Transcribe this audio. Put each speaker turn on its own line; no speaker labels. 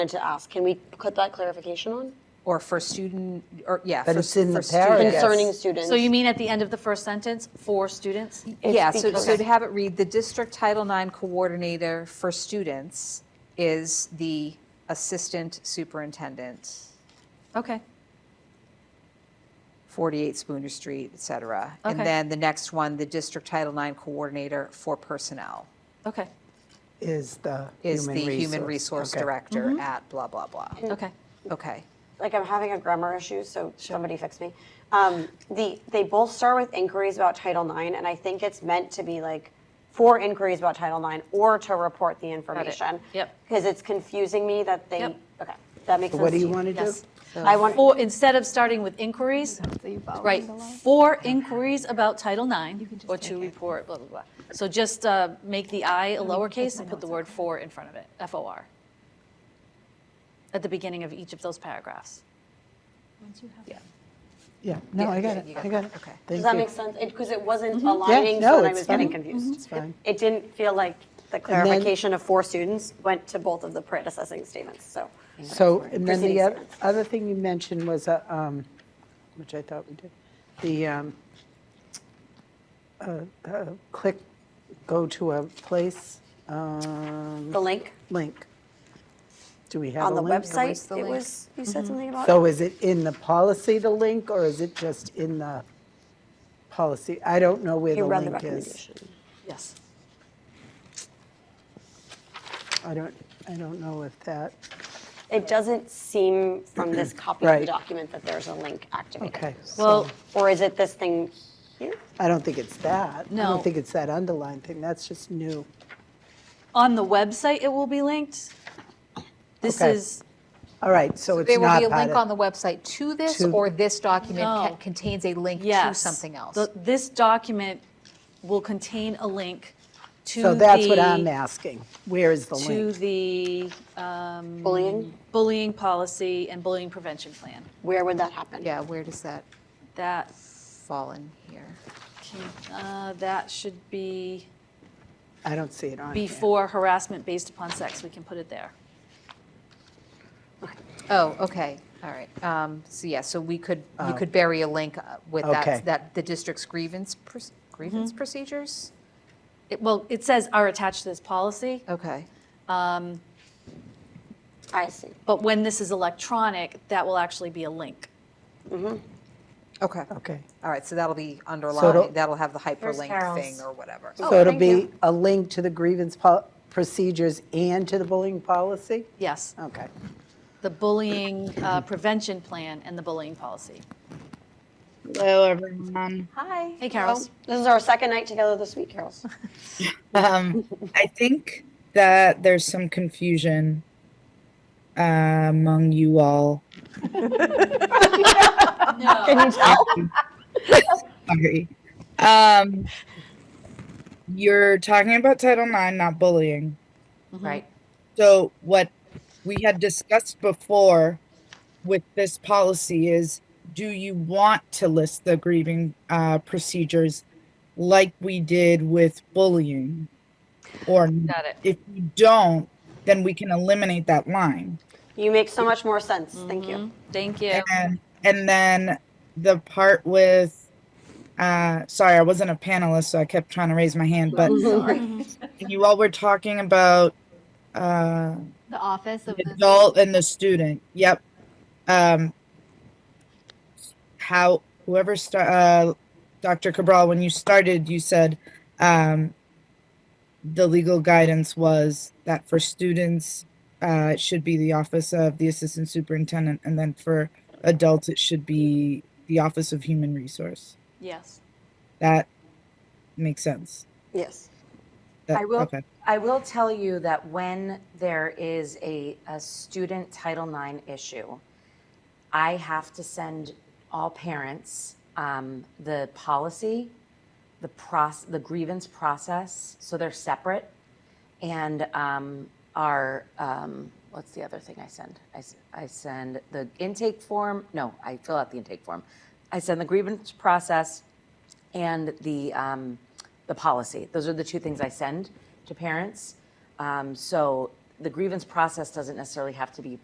meant to ask, can we put that clarification on?
Or for student, or, yeah.
But
for-
it's in
for
the paragraph.
students.
Concerning students.
So you mean at the end of the first sentence, for students?
It's
Yeah, so, so
because-
to have it read, the district Title IX coordinator for students is the assistant superintendent,
Okay,
48 Spooner Street, et cetera. And
Okay.
then the next one, the district Title IX coordinator for personnel
okay,
Is the
is the human resource
okay.
director at blah, blah, blah.
okay.
Okay.
like I'm having a grammar issue, so somebody fix me. Um, the they both start with inquiries about Title IX, and I think it's meant to be like for inquiries about Title IX or to report the information.
Yep.
Because it's confusing me that they.
Yep.
Okay, that makes sense.
What do you
to
want to do?
Yes.
I want.
For, instead of starting with inquiries, right, for inquiries about Title IX or to report, blah, blah, blah. So just uh, make the I a lowercase and put the word for in front of it, F-O-R, at the beginning of each of those paragraphs.
Yeah, no, I got it, I got it.
Okay.
does
Thank
that
you.
make sense? Because it, wasn't aligning,
no,
so then I
it's
was getting
fine.
confused.
Mhm. It's fine.
It, it didn't feel like the clarification of four students went to both of the predecessing statements. So.
So, and then
Proceeding
the oth-
statements.
other thing you mentioned was, uh, um, which I thought we did, the um, uh, uh, click, go to a place, um,
The link
link. Do we have
on
a
the
link? Mm-hmm.
website,
the
it
link.
was, you said something about?
So is it in the policy, the link, or is it just in the policy? I don't know where
You
the
read the
link is.
recommendation.
Yes.
I don't, I don't know if that,
It doesn't seem from this copy of the
Right.
document that there's a link activated.
okay.
Well,
so
Or is it this thing here?
I don't think it's that. I
No.
don't think it's that underlined thing, that's just new.
on the website, it will be linked. This
Okay.
is,
All right, so it's
There will
not
be a
part
link on
of.
the website to this,
To-
or this document ca-
No.
contains a link to
yes.
something else?
The- This document will contain a link to the.
So that's what I'm asking, where is the
To
link?
the um,
Bullying?
bullying policy and bullying prevention plan.
Where would that happen?
Yeah, where does that
That,
fall in here?
can- uh, that should be
I don't see it on here.
before harassment based upon sex. We can put it there.
Oh, okay, all right. Um, So, yeah, so we could, you could bury a link uh, with
Okay.
that, that, the district's grievance, proc- grievance procedures?
It- Well, it says are attached to this policy.
Okay,
I see.
But when this is electronic, that will actually be a link.
okay.
Okay.
All right, so that'll be underlined, that'll have the hyperlink
Carol's.
thing or whatever.
So it'll be a link to the grievance pol- procedures and to the bullying policy?
Yes,
Okay,
the bullying uh, prevention plan and the bullying policy.
Hello, everyone.
Hi.
Hey,
Oh.
Carols.
This is our second night together this week, Carols.
Um, I think that there's some confusion uh, among you all.
Can you tell?
Sorry. Um, you're talking about Title IX, not bullying.
Right,
So, what we had discussed before with this policy is do you want to list the grieving uh, procedures like we did with bullying? Or not?
Got it.
if you don't, then we can eliminate that line.
You make so much more sense. Thank you.
Thank you.
And and then the part with uh sorry, I wasn't a panelist, so I kept trying to raise my hand, but you all were talking about uh
The office of
the
the
adult and the student. Yep. Um how whoever start uh Dr. Cabral, when you started, you said um the legal guidance was that for students uh, it should be the office of the assistant superintendent and then for adults it should be the office of human resource
Yes.
that makes sense
Yes.
That-
I will,
okay.
I will tell you that when there is a, a student Title IX issue, I have to send all parents um, the policy, the process, the grievance process, so they're separate, and um, our um, what's the other thing I send? I, s- I send the intake form. No, I fill out the intake form. I send the grievance process and the um, the policy. Those are the two things I send to parents. Um, so the grievance process doesn't necessarily have to be